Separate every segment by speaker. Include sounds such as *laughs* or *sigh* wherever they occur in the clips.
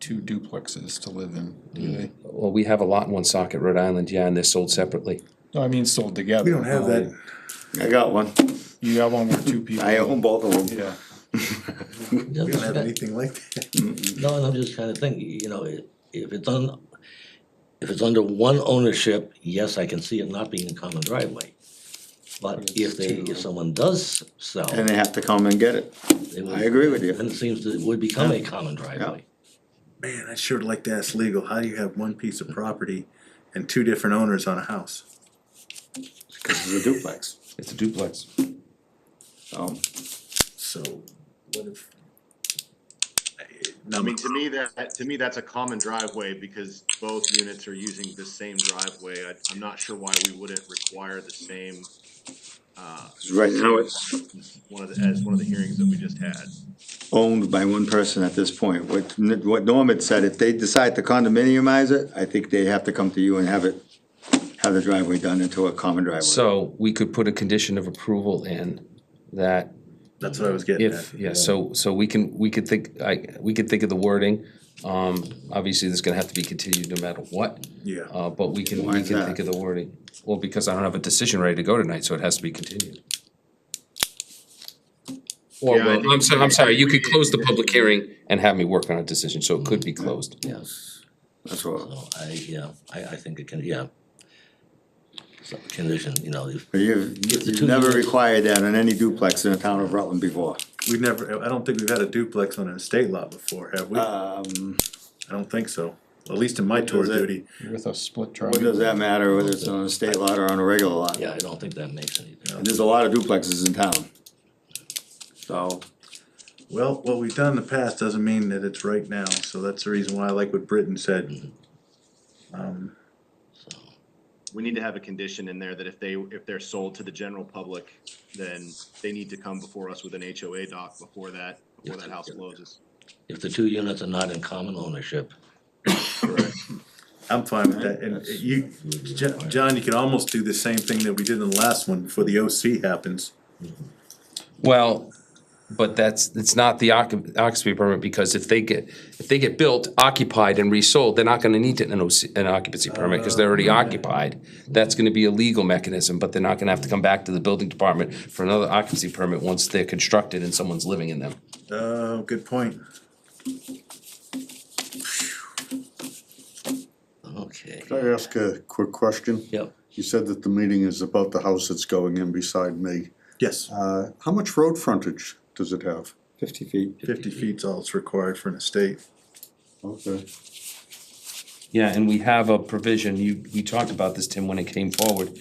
Speaker 1: two duplexes to live in, do
Speaker 2: Mm.
Speaker 1: they?
Speaker 3: Well, we have a lot in one socket, Rhode Island, yeah, and they're sold separately.
Speaker 1: No, I mean sold together. Oh,
Speaker 4: We don't have that.
Speaker 2: I got one.
Speaker 1: You got one with two people.
Speaker 2: *laughs* I own both of them.
Speaker 1: Yeah,
Speaker 4: We don't have anything like that.
Speaker 5: No, and I'm just kinda thinking, you know, i- if it's on, if it's under one ownership, yes, I can see it not being a common driveway. But if they, if someone does sell,
Speaker 2: And they have to come and get it.
Speaker 5: they
Speaker 2: I
Speaker 5: would,
Speaker 2: agree with
Speaker 5: then
Speaker 2: you.
Speaker 5: it seems that it would become a common driveway.
Speaker 4: Man, I sure like to ask legal, how do you have one piece of property and two different owners on a house?
Speaker 2: Cause it's a duplex.
Speaker 3: It's a duplex.
Speaker 2: So,
Speaker 4: So what if? I
Speaker 6: I
Speaker 4: Um,
Speaker 6: mean, to me, that, to me, that's a common driveway because both units are using the same driveway. I, I'm not sure why we wouldn't require the same, uh,
Speaker 2: right now it's
Speaker 6: one of the, as one of the hearings that we just had.
Speaker 2: owned by one person at this point. What, what Norm had said, if they decide to condominiumize it, I think they have to come to you and have it, have the driveway done into a common driveway.
Speaker 3: So we could put a condition of approval in that
Speaker 4: That's what I was getting at.
Speaker 3: if, yeah, so, so we can, we could think, I, we could think of the wording. Um, obviously, there's gonna have to be continued no matter what,
Speaker 4: Yeah,
Speaker 3: uh, but we can,
Speaker 2: Why
Speaker 3: we
Speaker 2: is
Speaker 3: can
Speaker 2: that?
Speaker 3: think of the wording. Well, because I don't have a decision ready to go tonight, so it has to be continued. Or,
Speaker 6: Yeah, I
Speaker 3: well,
Speaker 6: think-
Speaker 3: I'm sorry, I'm sorry, you could
Speaker 6: we-
Speaker 3: close the public hearing and have me work on a decision, so it could be
Speaker 6: Mm-hmm.
Speaker 3: closed.
Speaker 5: Yes.
Speaker 2: That's what,
Speaker 5: So I, yeah, I, I think it can, yeah. So condition, you know, if,
Speaker 2: but you,
Speaker 5: the
Speaker 2: you've
Speaker 5: two
Speaker 2: never
Speaker 5: units-
Speaker 2: required that on any duplex in the town of Rutland before.
Speaker 4: we never, I don't think we've had a duplex on an estate lot before, have we? I
Speaker 2: Um,
Speaker 4: don't think so, at least in my tour
Speaker 2: Does it-
Speaker 4: duty.
Speaker 1: with a split
Speaker 2: what does
Speaker 1: driveway.
Speaker 2: that matter whether it's on a state lot or on a regular lot?
Speaker 5: yeah, I don't think that makes any difference.
Speaker 2: And there's a lot of duplexes in town. So,
Speaker 4: Well, what we've done in the past doesn't mean that it's right now, so that's the reason why I like what Britton said. Um,
Speaker 5: So,
Speaker 6: We need to have a condition in there that if they, if they're sold to the general public, then they need to come before us with an HOA doc before that, before that house closes.
Speaker 5: If the two units are not in common ownership,
Speaker 4: I'm fine with that, and you, Jo- John, you could almost do the same thing that we did in the last one before the OC happens.
Speaker 3: Well, but that's, it's not the occup- occupancy permit, because if they get, if they get built, occupied and resold, they're not gonna need an OC, an occupancy permit, because they're already occupied. That's gonna be a legal mechanism, but they're not gonna have to come back to the building department for another occupancy permit once they're constructed and someone's living in them.
Speaker 4: Oh, good point.
Speaker 5: okay,
Speaker 7: Can I ask a quick question?
Speaker 5: yep.
Speaker 7: You said that the meeting is about the house that's going in beside me.
Speaker 4: Yes,
Speaker 7: Uh, how much road frontage does it have?
Speaker 2: fifty feet.
Speaker 4: fifty feet's all it's required for an estate.
Speaker 7: Okay,
Speaker 3: Yeah, and we have a provision, you, we talked about this, Tim, when it came forward.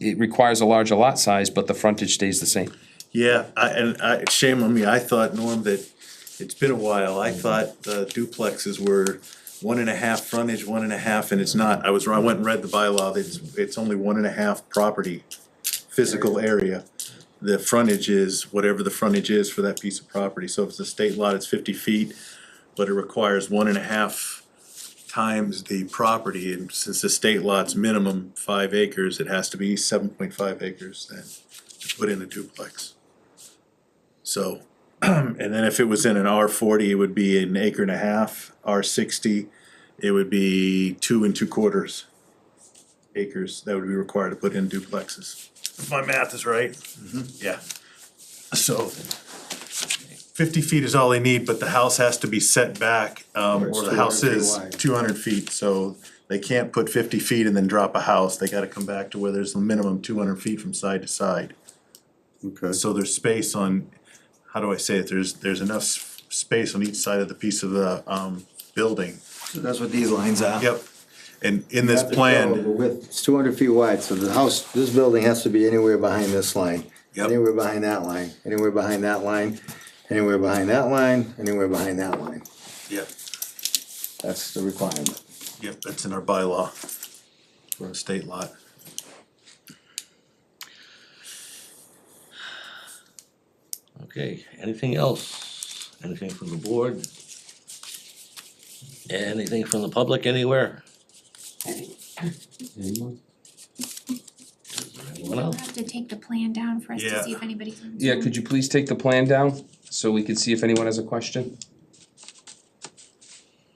Speaker 3: It requires a larger lot size, but the frontage stays the same.
Speaker 4: Yeah, I, and I, shame on me, I thought, Norm, that it's been a while, I thought the duplexes were one and a half frontage, one and a half, and it's not, I was wrong, I went and read the bylaw, it's, it's only one and a half property, physical area. The frontage is whatever the frontage is for that piece of property, so if it's a state lot, it's fifty feet, but it requires one and a half times the property, and since the state lot's minimum five acres, it has to be seven point five acres then to put in a duplex. So, *clears throat* and then if it was in an R forty, it would be an acre and a half, R sixty, it would be two and two quarters acres that would be required to put in duplexes. Mm-hmm. If my math is right, yeah. So fifty feet is all they need, but the house has to be set back, um,
Speaker 7: it's
Speaker 4: or the house
Speaker 7: 200 feet
Speaker 4: is
Speaker 7: wide.
Speaker 4: two hundred feet, so they can't put fifty feet and then drop a house, they gotta come back to where there's a minimum two hundred feet from side to side.
Speaker 7: okay.
Speaker 4: So there's space on, how do I say it, there's, there's enough s- space on each side of the piece of the, um, building.
Speaker 2: That's what these lines are.
Speaker 4: Yep, and in this plan,
Speaker 2: It's two hundred feet wide, so the house, this building has to be anywhere behind this line.
Speaker 4: Yep.
Speaker 2: Anywhere behind that line, anywhere behind that line, anywhere behind that line, anywhere behind that line.
Speaker 4: yep,
Speaker 2: That's the requirement.
Speaker 4: yep, that's in our bylaw for a state lot.
Speaker 5: Okay, anything else? Anything from the board? Anything from the public anywhere? Is there Anyone
Speaker 8: We'll
Speaker 5: else?
Speaker 8: have to take the plan down for us
Speaker 4: Yeah.
Speaker 8: to see if anybody comes.
Speaker 3: Yeah, could you please take the plan down, so we can see if anyone has a question?